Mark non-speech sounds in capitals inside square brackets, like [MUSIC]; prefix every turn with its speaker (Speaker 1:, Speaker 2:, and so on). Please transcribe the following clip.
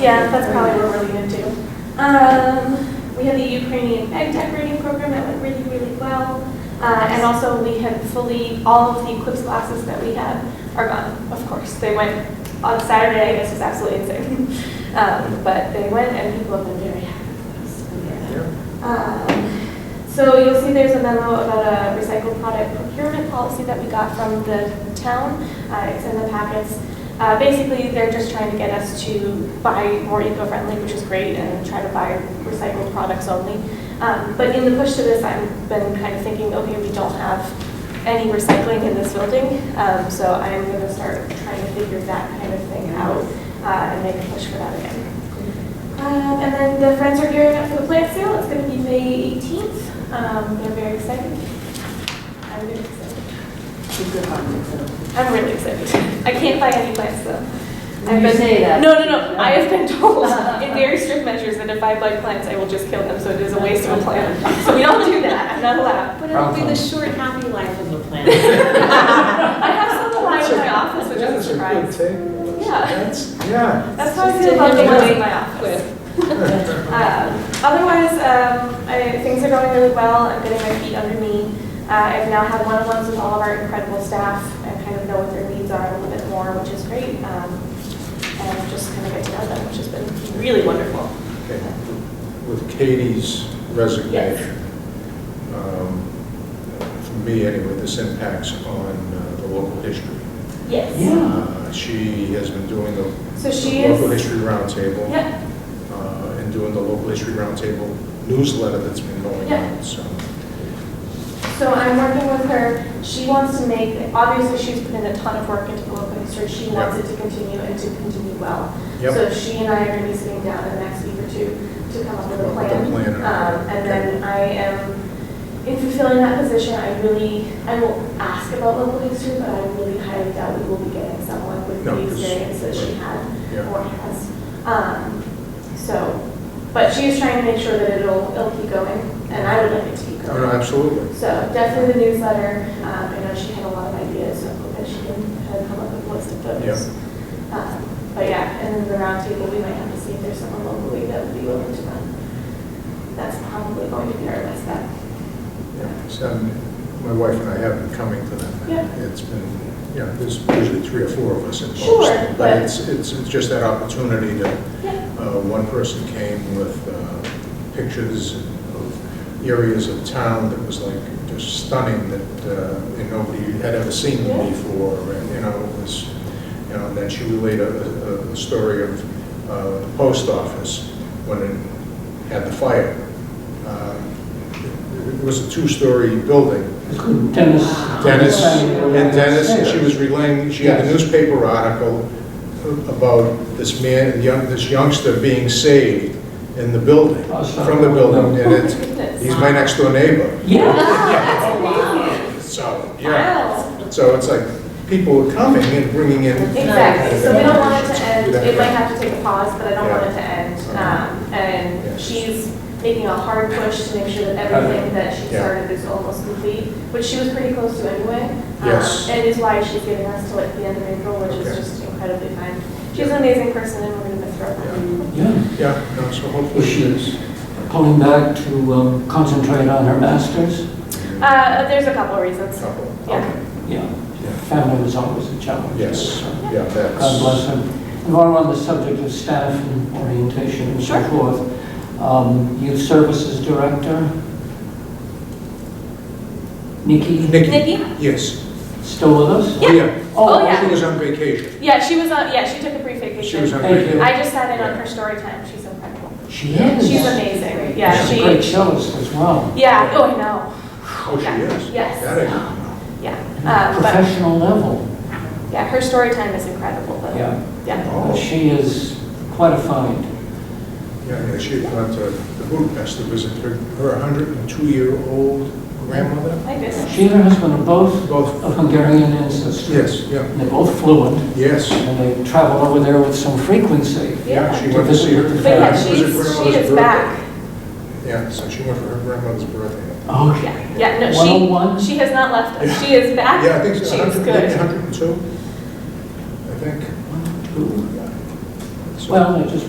Speaker 1: Yeah, that's probably what we're leaning to. Um, we had the Ukrainian egg decorating program that went really, really well. Uh, and also we had fully, all of the Eclipse glasses that we had are gone, of course. They went on Saturday, this was absolutely insane. [LAUGHS] Um, but they went and people have been very happy with us. Um, So you'll see there's a memo about a recycled product procurement policy that we got from the town. Uh, It's in the packets. Uh, Basically, they're just trying to get us to buy more eco-friendly, which is great, and try to buy recycled products only. Um, But in the push to this, I've been kind of thinking, okay, we don't have any recycling in this building, Um, so I'm going to start trying to figure that kind of thing out uh, and make a push for that again. Um, And then the friends are gearing up for the plant sale. It's going to be May 18th. Um, They're very excited. I'm really excited. I'm really excited. I can't buy any plants though. I've
Speaker 2: You
Speaker 1: been-
Speaker 2: say that.
Speaker 1: No, no, no. I have been told in very strict measures that if I buy plants, I will just kill them, so it is a waste of a plant. So we don't do that. I'm not allowed.
Speaker 3: But it'll be the
Speaker 4: Problem.
Speaker 3: short, happy life of the planet.
Speaker 1: I have some alive in my office, which is a surprise. Yeah.
Speaker 4: Yeah.
Speaker 1: That's how I feel about the ones in my office. Um, Otherwise, um, I- things are going really well. I'm getting my feet under me. Uh, I've now had one-on-ones with all of our incredible staff. I kind of know what their needs are a little bit more, which is great. Um, And just kind of get to know them, which has been really wonderful.
Speaker 4: Okay. With Katie's resignation, um, for me anyway, this impacts on uh, the local history.
Speaker 1: Yes.
Speaker 2: Yeah.
Speaker 4: Uh, She has been doing the
Speaker 1: So she
Speaker 4: the local
Speaker 1: is-
Speaker 4: history roundtable.
Speaker 1: Yep.
Speaker 4: uh, And doing the local history roundtable newsletter that's been going
Speaker 1: Yeah.
Speaker 4: on, so.
Speaker 1: So I'm working with her. She wants to make, obviously, she's put in a ton of work into the local history. She wants it to continue and to continue well.
Speaker 4: Yep.
Speaker 1: So she and I are going to be sitting down in the next week or two to come up with a
Speaker 4: Come up with a
Speaker 1: plan.
Speaker 4: plan.
Speaker 1: Um, And then I am, in fulfilling that position, I really, I will ask about local history, but I really highly doubt we will be getting someone with
Speaker 4: No,
Speaker 1: the
Speaker 4: 'cause-
Speaker 1: experience that she had
Speaker 4: Yeah.
Speaker 1: or has. Um, So, but she is trying to make sure that it'll, it'll keep going, and I would like it to keep
Speaker 4: No, no,
Speaker 1: going.
Speaker 4: absolutely.
Speaker 1: So definitely the newsletter, um, I know she had a lot of ideas, so I hope that she can kind of come up with a list of those. Um, But yeah, and then the roundtable, we might have to see if there's someone locally that would be willing to run. That's probably going to be our best bet.
Speaker 4: Yeah, So um, my wife and I have been coming to them.
Speaker 1: Yeah.
Speaker 4: It's been, you know, there's usually three or four of us involved.
Speaker 1: Sure, but-
Speaker 4: it's, it's it's just that opportunity to,
Speaker 1: Yeah.
Speaker 4: uh, one person came with uh, pictures of areas of town that was like just stunning that, uh, and nobody had ever seen
Speaker 1: Yeah.
Speaker 4: them before. And, you know, it was, you know, and then she related a, a- a story of uh, the post office when it had the fire. Um, it- It was a two-story building,
Speaker 5: Dennis.
Speaker 4: Dennis, and Dennis, and she was relaying, she had a newspaper article about this man, young, this youngster being saved in the building,
Speaker 5: Oh,
Speaker 4: from the building, and
Speaker 1: [LAUGHS]
Speaker 4: it's, he's my next door neighbor.
Speaker 5: Yeah.
Speaker 4: So, yeah,
Speaker 1: Wow.
Speaker 4: so it's like, people were coming and bringing in.
Speaker 1: Exactly, so we don't want it to end, it might have to take a pause, but I don't want
Speaker 4: Yeah.
Speaker 1: it to end.
Speaker 4: Yeah.
Speaker 1: Um,
Speaker 4: Yeah.
Speaker 1: And she's making a hard push to make sure that everything that she
Speaker 4: Yeah.
Speaker 1: started is almost complete, which she was pretty close to anyway. um,
Speaker 4: Yes.
Speaker 1: And is why she's giving us till like the end of April, which is
Speaker 4: Okay.
Speaker 1: just incredibly fine. She's an amazing person and we're gonna miss her.
Speaker 5: Yeah,
Speaker 4: Yeah, no, so
Speaker 5: well,
Speaker 4: hopefully
Speaker 5: she
Speaker 4: she
Speaker 5: is pulling back to um, concentrate on her masters.
Speaker 1: Uh, there's a couple of reasons.
Speaker 4: couple.
Speaker 1: Yeah.
Speaker 5: Yeah, family was always a challenge.
Speaker 4: Yes,
Speaker 5: So,
Speaker 4: yeah, that's.
Speaker 5: God bless her. And while we're on the subject of staff and orientation and so
Speaker 1: Sure.
Speaker 5: forth, um, youth services director, Nikki,
Speaker 4: Nikki,
Speaker 1: Nikki?
Speaker 4: yes,
Speaker 5: still with us?
Speaker 1: Yeah. Oh, yeah.
Speaker 4: She was on vacation,
Speaker 1: Yeah, she was on, yeah, she took a brief
Speaker 4: she was
Speaker 1: vacation.
Speaker 4: uh, on
Speaker 5: Thank
Speaker 4: vacation.
Speaker 5: you.
Speaker 1: I just sat in on her story time, she's incredible.
Speaker 5: She is.
Speaker 1: She's amazing, yeah,
Speaker 5: She's a
Speaker 1: she,
Speaker 5: great cellist as well,
Speaker 1: yeah, oh, I know.
Speaker 4: Oh, she
Speaker 1: Yeah.
Speaker 4: is?
Speaker 1: Yes.
Speaker 4: That I didn't know.
Speaker 1: Yeah, um, but,
Speaker 5: professional level.
Speaker 1: yeah, her story time is incredible, but,
Speaker 5: Yeah.
Speaker 1: yeah.
Speaker 5: Uh,
Speaker 4: Oh,
Speaker 5: She is quite a find.
Speaker 4: yeah, yeah, she had gone to uh, Budapest to visit her, her 102-year-old grandmother.
Speaker 1: I guess.
Speaker 5: She and her husband are both
Speaker 4: Both,
Speaker 5: of Hungarian ancestry.
Speaker 4: yes, yeah,
Speaker 5: And They're both fluent,
Speaker 4: yes,
Speaker 5: and they travel over there with some frequency.
Speaker 4: yeah, she
Speaker 5: To
Speaker 4: went to
Speaker 5: visit
Speaker 4: see her.
Speaker 5: with the
Speaker 1: But yeah,
Speaker 5: Uh,
Speaker 4: was her
Speaker 1: she's, she
Speaker 4: grandmother's
Speaker 1: is
Speaker 4: birthday.
Speaker 1: back.
Speaker 4: Yeah, so she went for her grandmother's birthday.
Speaker 5: Okay.
Speaker 1: Oh, Yeah, yeah, no,
Speaker 5: 101?
Speaker 1: she, she has not left us. She is back.
Speaker 4: oh [LAUGHS] Yeah, I think
Speaker 1: Ah, She's
Speaker 4: so, 100
Speaker 1: good.
Speaker 4: 102, I think.
Speaker 5: One, two.
Speaker 4: So-
Speaker 5: Well, I just